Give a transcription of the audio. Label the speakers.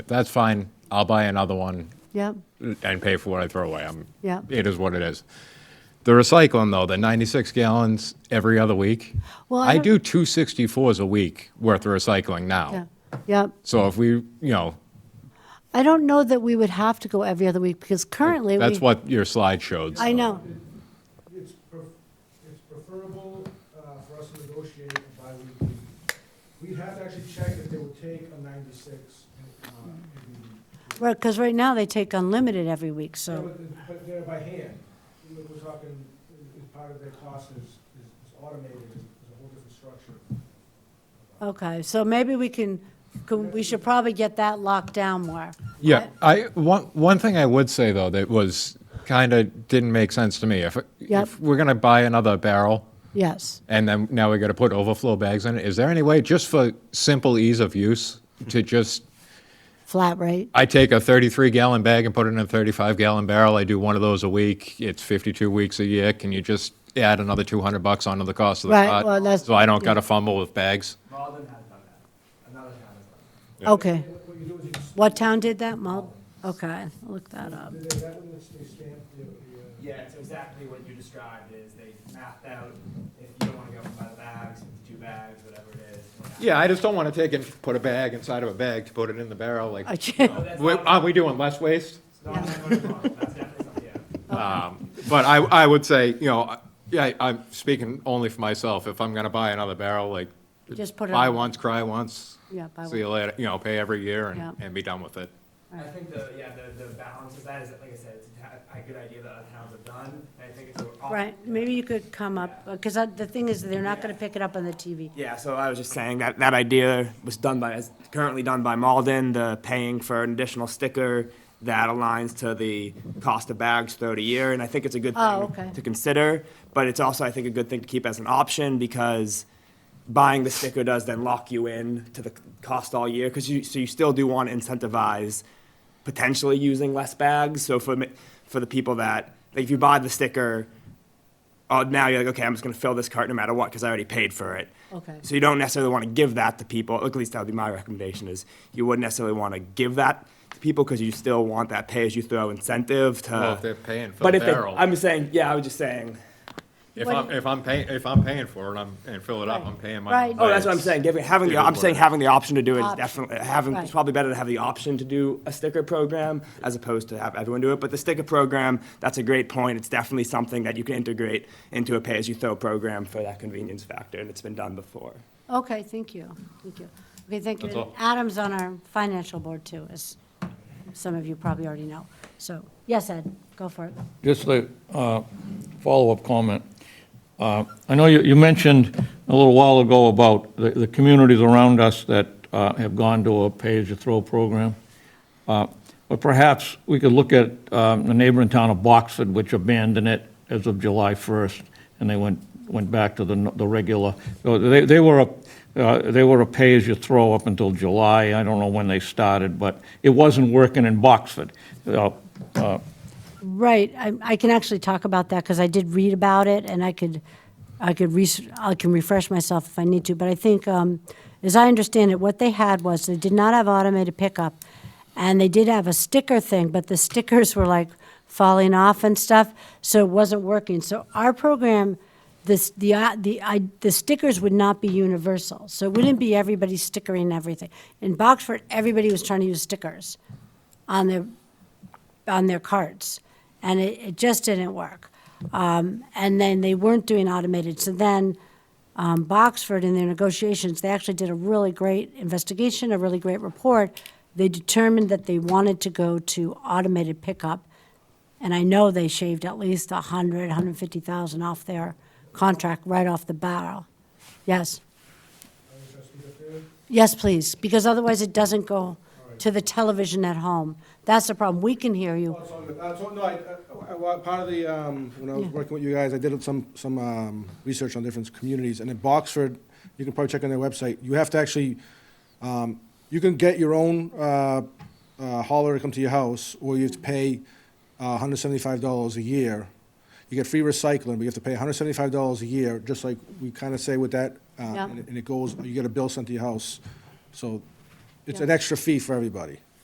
Speaker 1: that's fine. I'll buy another one
Speaker 2: Yep,
Speaker 1: and pay for what I throw away. I'm,
Speaker 2: Yep.
Speaker 1: It is what it is. The recycling, though, the 96 gallons every other week.
Speaker 2: Well,
Speaker 1: I
Speaker 2: I don't-
Speaker 1: do 264s a week worth of recycling
Speaker 2: yeah,
Speaker 1: now.
Speaker 2: yep.
Speaker 1: So if we, you know,
Speaker 2: I don't know that we would have to go every other week because currently we.
Speaker 1: that's what your slide showed.
Speaker 2: I
Speaker 1: so.
Speaker 2: know,
Speaker 3: It's pref- it's preferable uh, for us to negotiate a bi-weekly. We'd have to actually check if they would take a 96. uh, if we-
Speaker 2: because right now they take unlimited every week,
Speaker 3: Yeah,
Speaker 2: so,
Speaker 3: but- But they're by hand. You know, We're talking, is part of their cost is is- is automated, is is a whole different structure.
Speaker 2: okay, so maybe we can, could- we should probably get that locked down more.
Speaker 1: Yeah, I, one, one thing I would say, though, that was, kind of didn't make sense to me. If,
Speaker 2: Yep.
Speaker 1: if we're going to buy another barrel
Speaker 2: Yes,
Speaker 1: and then now we got to put overflow bags in it, is there any way, just for simple ease of use, to just,
Speaker 2: flat rate,
Speaker 1: I take a 33 gallon bag and put it in a 35 gallon barrel, I do one of those a week, it's 52 weeks a year, can you just add another 200 bucks onto the cost of the
Speaker 2: Right,
Speaker 1: pot?
Speaker 2: well, that's-
Speaker 1: So I don't got to fumble with bags?
Speaker 3: Malden has done that. Another town has done
Speaker 2: okay.
Speaker 3: that. What you do is you, s-
Speaker 2: What town did that, Mal? Okay, look that up.
Speaker 3: they- that one that's, they stamp the, the, uh,
Speaker 4: Yeah, it's exactly what you described is they mapped out, if you don't wanna go by the bags, two bags, whatever it is. we're not-
Speaker 1: Yeah, I just don't want to take and put a bag inside of a bag to put it in the barrel, like,
Speaker 2: Okay.
Speaker 4: That's
Speaker 1: we-
Speaker 4: not,
Speaker 1: aren't we doing less waste?
Speaker 4: it's not my motor model, that's definitely something, yeah.
Speaker 1: Um, But I, I would say, you know, I- yeah, I'm speaking only for myself, if I'm going to buy another barrel, like,
Speaker 2: Just put it
Speaker 1: buy
Speaker 2: on-
Speaker 1: once, cry once,
Speaker 2: Yeah, buy
Speaker 1: see you later, you know, pay every year and,
Speaker 2: Yeah.
Speaker 1: and be done with it.
Speaker 4: I think the, yeah, the, the balance of that is, like I said, it's a ta- a good idea that other towns have done, and I think it's. a-
Speaker 2: Right, maybe you could come up, because the thing is, they're not going to pick it up on the TV.
Speaker 4: Yeah, so I was just saying that that idea was done by, is currently done by Malden, the paying for an additional sticker that aligns to the cost of bags throughout a year, and I think it's a good thing
Speaker 2: Oh, okay.
Speaker 4: to consider, but it's also, I think, a good thing to keep as an option because buying the sticker does then lock you in to the cost all year, because you, so you still do want to incentivize potentially using less bags, so for, me- for the people that, like, if you buy the sticker, oh, now you're like, okay, I'm just gonna fill this cart no matter what, because I already paid for it.
Speaker 2: Okay.
Speaker 4: So you don't necessarily want to give that to people. At least that would be my recommendation: is you wouldn't necessarily want to give that to people because you still want that pay-as-you-throw incentive
Speaker 2: Uh,
Speaker 4: to.
Speaker 1: Well, if they're paying for
Speaker 4: but
Speaker 1: the
Speaker 4: if they-
Speaker 1: barrel.
Speaker 4: I'm just saying, yeah, I was just saying.
Speaker 1: If
Speaker 2: What-
Speaker 1: I'm, if I'm paying, if I'm paying for it, I'm, and fill it up, I'm paying my.
Speaker 2: Right.
Speaker 1: own
Speaker 4: Oh, that's what I'm
Speaker 1: rates.
Speaker 4: saying. Giving, having
Speaker 1: It is
Speaker 4: the, I'm
Speaker 1: what
Speaker 4: saying
Speaker 1: it
Speaker 4: having the option to do it is
Speaker 2: Option.
Speaker 4: definitely having.
Speaker 2: Right.
Speaker 4: It's probably better to have the option to do a sticker program as opposed to have everyone do it. But the sticker program, that's a great point. It's definitely something that you can integrate into a pay-as-you-throw program for that convenience factor, and it's been done before.
Speaker 2: Okay, thank you, thank you. Okay, thank
Speaker 1: That's
Speaker 2: you.
Speaker 1: all.
Speaker 2: Adam's on our financial board too, as some of you probably already know. So, yes, Ed, go for it.
Speaker 5: Just a uh, follow-up comment. Uh, I know you you mentioned a little while ago about the the communities around us that uh, have gone to a pay-as-you-throw program, Uh, but perhaps we could look at um, the neighboring town of Boxford, which abandoned it as of July 1st, and they went, went back to the n- the regular, so they they were, a- uh, they were a pay-as-you-throw up until July, I don't know when they started, but it wasn't working in Boxford. Uh, uh,
Speaker 2: Right, I, I can actually talk about that because I did read about it and I could, I could, res- I can refresh myself if I need to. But I think, um, as I understand it, what they had was they did not have automated pickup and they did have a sticker thing, but the stickers were like falling off and stuff, so it wasn't working. So our program, this, the, i- the, I, the stickers would not be universal. So it wouldn't be everybody stickering everything. In Boxford, everybody was trying to use stickers on their on their carts, and it, it just didn't work. Um, and then they weren't doing automated. So then um, Boxford, in their negotiations, they actually did a really great investigation, a really great report. They determined that they wanted to go to automated pickup, and I know they shaved at least 100, 150,000 off their contract right off the barrel. Yes. Yes, please, because otherwise it doesn't go to the television at home. That's the problem. We can hear you.
Speaker 3: Oh, it's all good. Uh, so, no, I, I- I- well, part of the, um, when I was
Speaker 2: Yeah.
Speaker 3: working with you guys, I did some, some, um, research on different communities, and in Boxford, you can probably check on their website, you have to actually, um, you can get your own, uh, uh, hauler to come to your house, or you have to pay, uh, hundred seventy-five dollars a year. You get free recycling, but you have to pay hundred seventy-five dollars a year, just like we kinda say with that, uh,
Speaker 2: Yeah.
Speaker 3: and it- and it goes, you get a bill sent to your house, so it's
Speaker 2: Yeah.
Speaker 3: an extra fee for everybody.